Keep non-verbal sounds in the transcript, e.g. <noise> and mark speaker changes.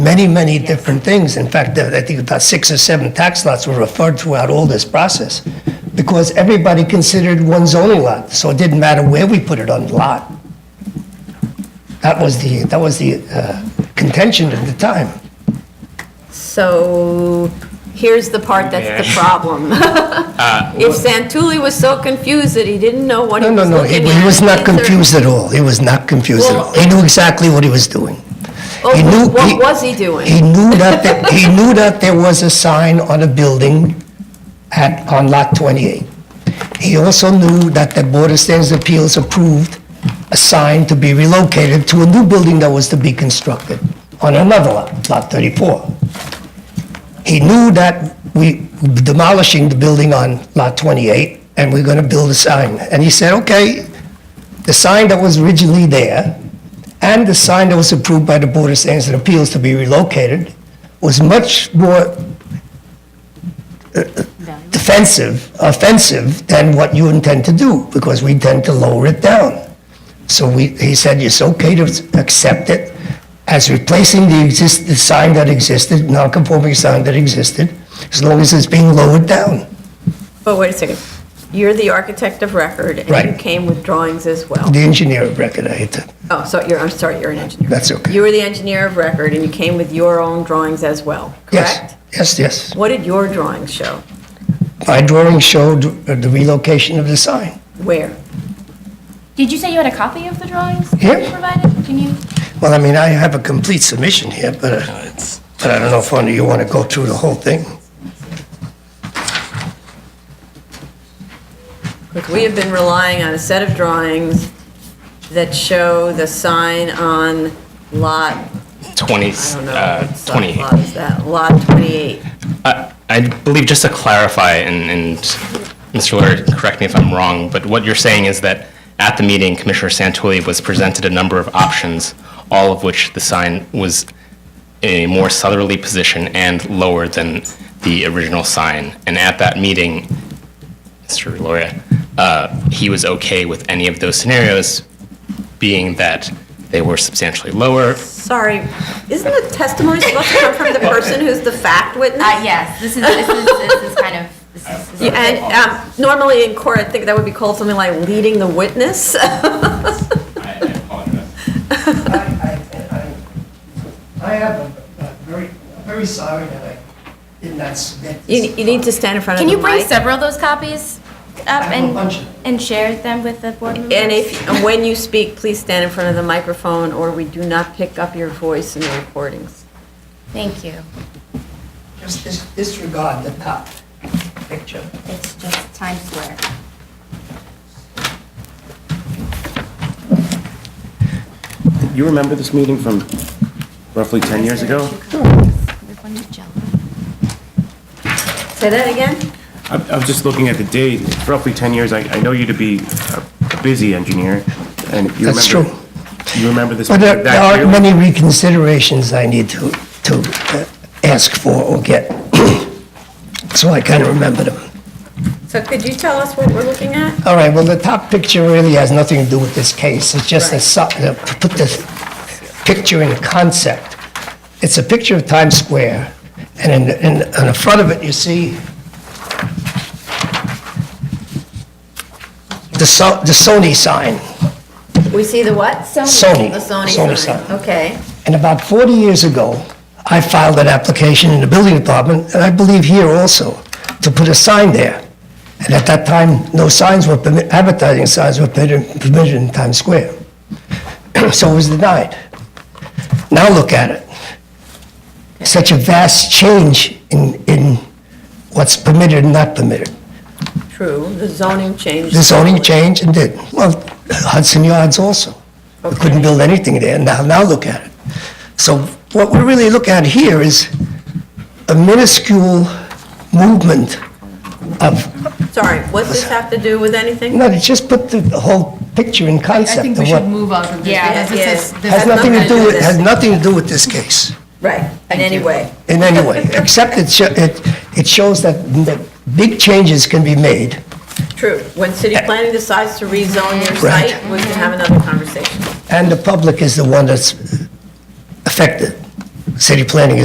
Speaker 1: many, many different things. In fact, there- I think about six or seven tax lots were referred throughout all this process because everybody considered one zoning lot, so it didn't matter where we put it on the lot. That was the, that was the uh, contention at the time.
Speaker 2: So here's the part that's the problem. <laughs> If Santulli was so confused that he didn't know what he
Speaker 1: No, no,
Speaker 2: was
Speaker 1: no, he
Speaker 2: looking at.
Speaker 1: he was not
Speaker 2: it's a-
Speaker 1: confused at all. He was not confused at
Speaker 2: Well,
Speaker 1: all. He knew exactly what he was doing.
Speaker 2: Well,
Speaker 1: He knew-
Speaker 2: What was he
Speaker 1: He
Speaker 2: doing?
Speaker 1: knew that, the-
Speaker 2: <laughs>
Speaker 1: he knew that there was a sign on a building at, on Lot 28. He also knew that the Board of Standards Appeals approved a sign to be relocated to a new building that was to be constructed on another lot, Lot 34. He knew that we demolishing the building on Lot 28, and we're gonna build a sign. And he said, okay, the sign that was originally there and the sign that was approved by the Board of Standards and Appeals to be relocated was much more uh, defensive, offensive than what you intend to do, because we tend to lower it down. So we, he said, it's okay to accept it as replacing the exist, the sign that existed, non-conforming sign that existed, as long as it's being lowered down.
Speaker 2: But wait a second. You're the architect of record, and you
Speaker 1: Right.
Speaker 2: came with drawings as well.
Speaker 1: The engineer of record, I hate to,
Speaker 2: Oh, so you're, I'm sorry, you're an engineer.
Speaker 1: That's okay.
Speaker 2: You were the engineer of record, and you came with your own drawings as well,
Speaker 1: yes,
Speaker 2: correct?
Speaker 1: yes, yes.
Speaker 2: What did your drawings show?
Speaker 1: My drawing showed uh, the relocation of the sign.
Speaker 2: Where?
Speaker 3: Did you say you had a copy of the drawings that
Speaker 1: Yeah.
Speaker 3: you provided? Can you?
Speaker 1: Well, I mean, I have a complete submission here, but, uh, but I don't know if only you want to go through the whole thing.
Speaker 2: Because we have been relying on a set of drawings that show the sign on lot
Speaker 4: 20,
Speaker 2: I don't know
Speaker 4: uh,
Speaker 2: what lot
Speaker 4: 28.
Speaker 2: is that, lot 28.
Speaker 4: I I believe, just to clarify, and and Mr. Lawyer, correct me if I'm wrong, but what you're saying is that at the meeting, Commissioner Santulli was presented a number of options, all of which the sign was in a more southerly position and lower than the original sign. And at that meeting, Mr. Lawyer, uh, he was okay with any of those scenarios, being that they were substantially lower,
Speaker 2: Sorry, isn't the testimony supposed to
Speaker 1: <laughs>
Speaker 2: come from the person who's the fact witness?
Speaker 3: Uh, yes, this is, this is, this is kind of, this is. this is-
Speaker 2: And um, normally in court, I think that would be called something like leading the witness. <laughs>
Speaker 1: I am very, very sorry that I did not submit
Speaker 2: You you need to stand in front of
Speaker 3: <laughs> Can
Speaker 2: the
Speaker 3: you
Speaker 2: mic.
Speaker 3: bring several of those copies
Speaker 1: I
Speaker 3: up
Speaker 1: have a bunch of
Speaker 3: and,
Speaker 1: them.
Speaker 3: and share them with the board members?
Speaker 2: And if, and when you speak, please stand in front of the microphone, or we do not pick up your voice in the recordings.
Speaker 3: Thank you.
Speaker 1: Just dis- disregard the top picture.
Speaker 3: It's just Times Square.
Speaker 5: You remember this meeting from roughly 10 years ago?
Speaker 2: Say that again?
Speaker 5: I I was just looking at the date, It's roughly 10 years. I I know you to be a a busy engineer, and you remember...
Speaker 1: That's true.
Speaker 5: You remember this...
Speaker 1: But there
Speaker 5: that
Speaker 1: there are
Speaker 5: clearly?
Speaker 1: many reconsiderations I need to, to uh, ask for or get. <clears throat> So I kind of remember them.
Speaker 2: So could you tell us what we're looking at?
Speaker 1: All right, well, the top picture really has nothing to do with this case. It's just a,
Speaker 2: Right.
Speaker 1: su- uh, to put the picture in concept. It's a picture of Times Square, and in, in, on the front of it, you see the So- the Sony sign.
Speaker 2: We see the what?
Speaker 1: Sony.
Speaker 2: The Sony
Speaker 1: Sony
Speaker 2: sign.
Speaker 1: sign.
Speaker 2: Okay.
Speaker 1: And about 40 years ago, I filed an application in the building department, and I believe here also, to put a sign there. And at that time, no signs were permitted, advertising signs were permitted permitted in Times Square. <clears throat> So it was denied. Now look at it. Such a vast change in, in what's permitted and not permitted.
Speaker 2: True, the zoning changed.
Speaker 1: The zoning
Speaker 2: totally.
Speaker 1: changed and did. Well, Hudson Yards also. We Couldn't build anything there. Now, now look at it. So what we're really looking at here is a minuscule movement of,
Speaker 2: Sorry, what's this have to do with anything?
Speaker 1: no, just put the whole picture in
Speaker 6: I
Speaker 1: concept.
Speaker 6: think we
Speaker 1: of
Speaker 6: should
Speaker 1: what-
Speaker 6: move on from this.
Speaker 3: Yeah,
Speaker 6: because
Speaker 2: yeah.
Speaker 6: this is- this
Speaker 1: Has
Speaker 6: is
Speaker 1: nothing to
Speaker 6: not-
Speaker 1: do with,
Speaker 2: this.
Speaker 1: has nothing to do with this case
Speaker 2: Right, in any
Speaker 6: you.
Speaker 2: way.
Speaker 1: in any way, <laughs> except it, sho- it, it shows that that big changes can be made
Speaker 2: <laughs> True. When city planning decides to rezone your
Speaker 1: Right.
Speaker 2: site, we can have another conversation.
Speaker 1: and the public is the one that's affected. city planning